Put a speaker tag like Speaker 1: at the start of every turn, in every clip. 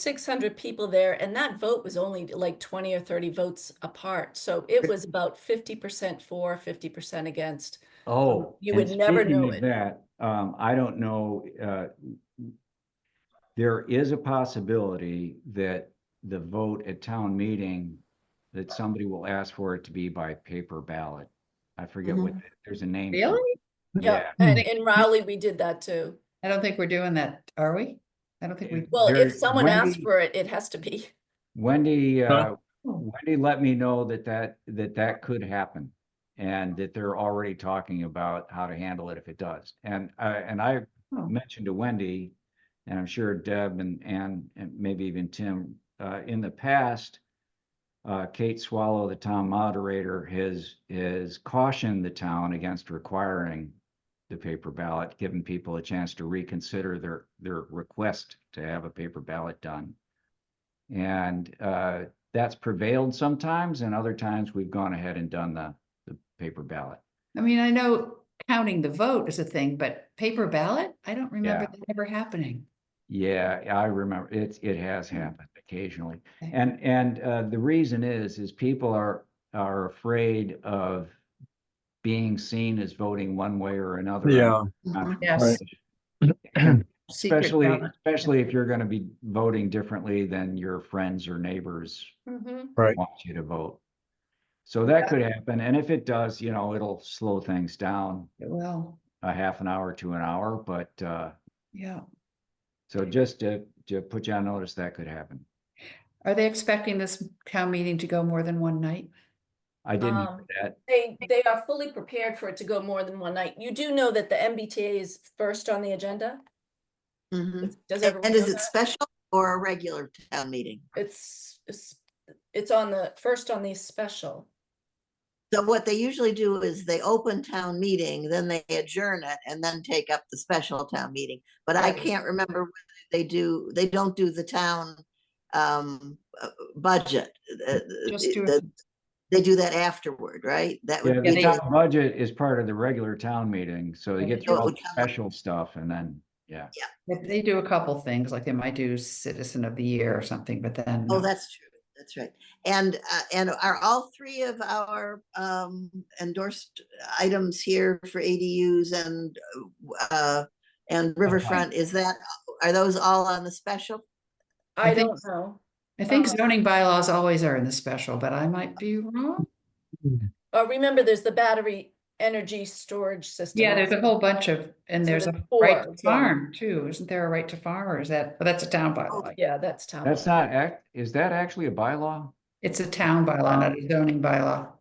Speaker 1: six hundred people there, and that vote was only like twenty or thirty votes apart. So it was about fifty percent for, fifty percent against.
Speaker 2: Oh.
Speaker 1: You
Speaker 2: and
Speaker 1: would never
Speaker 2: speaking
Speaker 1: know
Speaker 2: of
Speaker 1: it.
Speaker 2: That, um, I don't know, uh. There is a possibility that the vote at town meeting, that somebody will ask for it to be by paper ballot. I forget what,
Speaker 1: Mm-hmm.
Speaker 2: there's a name. for it.
Speaker 3: Really?
Speaker 1: Yeah,
Speaker 3: Yeah.
Speaker 1: and in Rowley, we did that too.
Speaker 3: I don't think we're doing that, are we? I don't think we,
Speaker 1: Well,
Speaker 2: There-
Speaker 1: if someone asks
Speaker 2: Wendy-
Speaker 1: for it, it has to be.
Speaker 2: Wendy, uh,
Speaker 4: Huh?
Speaker 2: Wendy let me know that that, that that could happen. And that they're already talking about how to handle it if it does. And, uh, and I
Speaker 3: Oh.
Speaker 2: mentioned to Wendy, and I'm sure Deb and, and, and maybe even Tim, uh, in the past, uh, Kate Swallow, the town moderator, has, has cautioned the town against requiring the paper ballot, giving people a chance to reconsider their, their request to have a paper ballot done. And uh, that's prevailed sometimes, and other times we've gone ahead and done the, the paper ballot.
Speaker 3: I mean, I know counting the vote is a thing, but paper ballot? I don't remember that ever happening.
Speaker 2: Yeah, I remember, it's, it has
Speaker 3: Hmm.
Speaker 2: happened occasionally.
Speaker 3: Okay.
Speaker 2: And, and uh, the reason is, is people are, are afraid of being seen as voting one way or another. on
Speaker 4: Yeah,
Speaker 2: Uh,
Speaker 3: Yes. secret
Speaker 2: Especially,
Speaker 3: ballot.
Speaker 2: especially if you're gonna be voting differently than your friends or neighbors
Speaker 1: Mhm.
Speaker 4: right.
Speaker 2: want you to vote. So that could happen, and if it does, you know, it'll slow things down
Speaker 3: Well,
Speaker 2: a half an hour to an hour, but, uh,
Speaker 3: yeah.
Speaker 2: so just to, to put you on notice, that could happen.
Speaker 3: Are they expecting this town meeting to go more than one night?
Speaker 2: I didn't hear
Speaker 1: Um,
Speaker 2: that,
Speaker 1: They, they are fully prepared for it to go more than one night. You do know that the MBTA is first on the agenda?
Speaker 5: Mhm.
Speaker 1: Does everyone
Speaker 5: And
Speaker 1: know
Speaker 5: is it
Speaker 1: that?
Speaker 5: special or a regular town meeting?
Speaker 1: It's, it's, it's on the, first on the special.
Speaker 5: So what they usually do is they open town meeting, then they adjourn it and then take up the special town meeting. But I
Speaker 1: Right.
Speaker 5: can't remember whether they do, they don't do the town um uh, budget. uh,
Speaker 3: Just
Speaker 5: the-
Speaker 3: do
Speaker 5: the- They do that afterward, right? That
Speaker 2: yeah,
Speaker 5: would be,
Speaker 2: the
Speaker 3: they-
Speaker 5: the-
Speaker 2: town budget is part of the regular town meeting, so they
Speaker 3: Okay.
Speaker 2: get through
Speaker 5: So it
Speaker 2: all
Speaker 5: would
Speaker 2: the
Speaker 5: come up.
Speaker 2: special stuff and then, yeah.
Speaker 3: If They do a couple things, like they might do citizen of the year or something, but then.
Speaker 5: oh,
Speaker 3: no.
Speaker 5: that's true, that's right. And uh, and are all three of our um endorsed items here for ADUs and uh and riverfront, is that, are those all on the special?
Speaker 1: I
Speaker 3: think
Speaker 1: don't know.
Speaker 3: I think
Speaker 1: um,
Speaker 3: zoning bylaws always are in the special, but I might be wrong.
Speaker 1: Uh, remember, there's the battery energy storage system.
Speaker 3: Yeah, there's a
Speaker 1: also.
Speaker 3: whole bunch of, and
Speaker 1: So
Speaker 3: there's
Speaker 1: there's
Speaker 3: a
Speaker 1: four,
Speaker 3: right to
Speaker 1: yeah.
Speaker 3: farm too. Isn't there a right to farm or is that, oh, that's a town bylaw.
Speaker 1: Yeah, that's town.
Speaker 2: That's
Speaker 1: hall.
Speaker 2: not act, is that actually a bylaw?
Speaker 3: It's a town bylaw, not a zoning bylaw,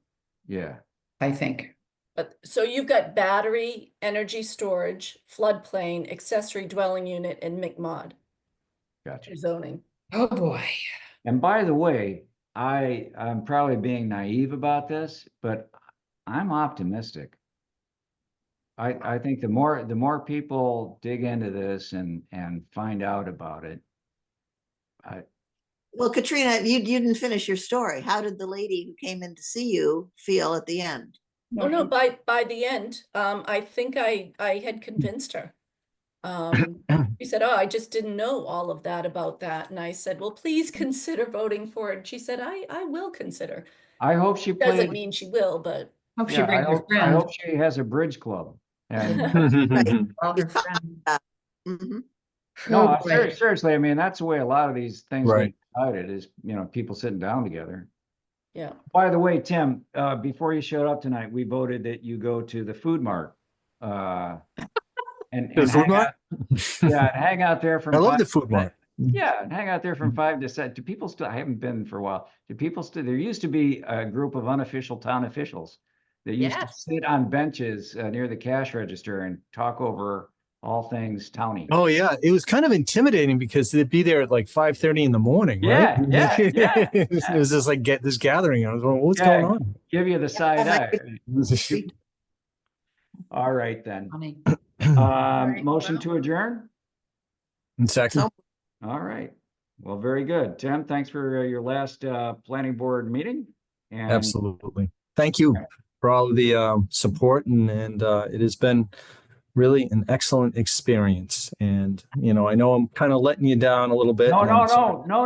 Speaker 2: Yeah,
Speaker 3: I think.
Speaker 1: But, so you've got battery, energy storage, floodplain, accessory dwelling unit, and McMod
Speaker 2: gotcha.
Speaker 1: zoning.
Speaker 3: Oh, boy.
Speaker 2: And by the way, I, I'm probably being naive about this, but I'm optimistic. I, I think the more, the more people dig into this and, and find out about it.
Speaker 5: Well, Katrina, you, you didn't finish your story. How did the lady who came in to see you feel at the end?
Speaker 1: Oh, no, by, by the end, um, I think I, I had convinced her. Um, she said, oh, I just didn't know all of that about that. And I said, well, please consider voting for it. And she said, I, I will consider.
Speaker 2: I hope she
Speaker 1: Doesn't
Speaker 2: plays,
Speaker 1: mean she will, but
Speaker 3: Hope she
Speaker 2: yeah, I
Speaker 3: brings her
Speaker 2: hope, I
Speaker 3: friend.
Speaker 2: hope she has a bridge club. And
Speaker 3: all her friend.
Speaker 5: hmm
Speaker 2: no,
Speaker 3: Oh,
Speaker 2: I- ser-
Speaker 3: boy.
Speaker 2: seriously, I mean, that's the way a lot of these things get
Speaker 4: Right.
Speaker 2: decided is, you know, people sitting down together.
Speaker 1: yeah.
Speaker 2: By the way, Tim, uh, before you showed up tonight, we voted that you go to the food mart. Uh, and, and
Speaker 4: The food
Speaker 2: hang
Speaker 4: mart?
Speaker 2: out- yeah, and hang out there from.
Speaker 4: I love
Speaker 2: five-
Speaker 4: the food mart.
Speaker 2: Yeah, and hang out there from five to seven. Do people still, I haven't been for a while. Do people still, there used to be a group of unofficial town officials that used to
Speaker 1: Yes.
Speaker 2: sit on benches uh, near the cash register and talk over all things towny.
Speaker 4: Oh yeah, it was kind of intimidating because they'd be there at like five thirty in the morning.
Speaker 2: Yeah,
Speaker 4: right?
Speaker 2: yeah, yeah,
Speaker 4: it was it was just like get this gathering. I was going, what's
Speaker 2: Yeah.
Speaker 4: going
Speaker 2: Give you the side
Speaker 5: my
Speaker 2: eye.
Speaker 4: on?
Speaker 2: All right, then.
Speaker 3: Funny.
Speaker 2: Um,
Speaker 1: right,
Speaker 2: motion
Speaker 1: well-
Speaker 2: to adjourn?
Speaker 4: In second,
Speaker 2: All right. Well, very good. Tim, thanks for uh, your last uh, planning board meeting. and-
Speaker 4: absolutely. Thank you for all of the um, support, and and uh, it has been really an excellent experience. And, you know, I know I'm kind of letting you down a little bit.
Speaker 2: No,
Speaker 4: and I'm
Speaker 2: no,
Speaker 4: sorry.
Speaker 2: no, no,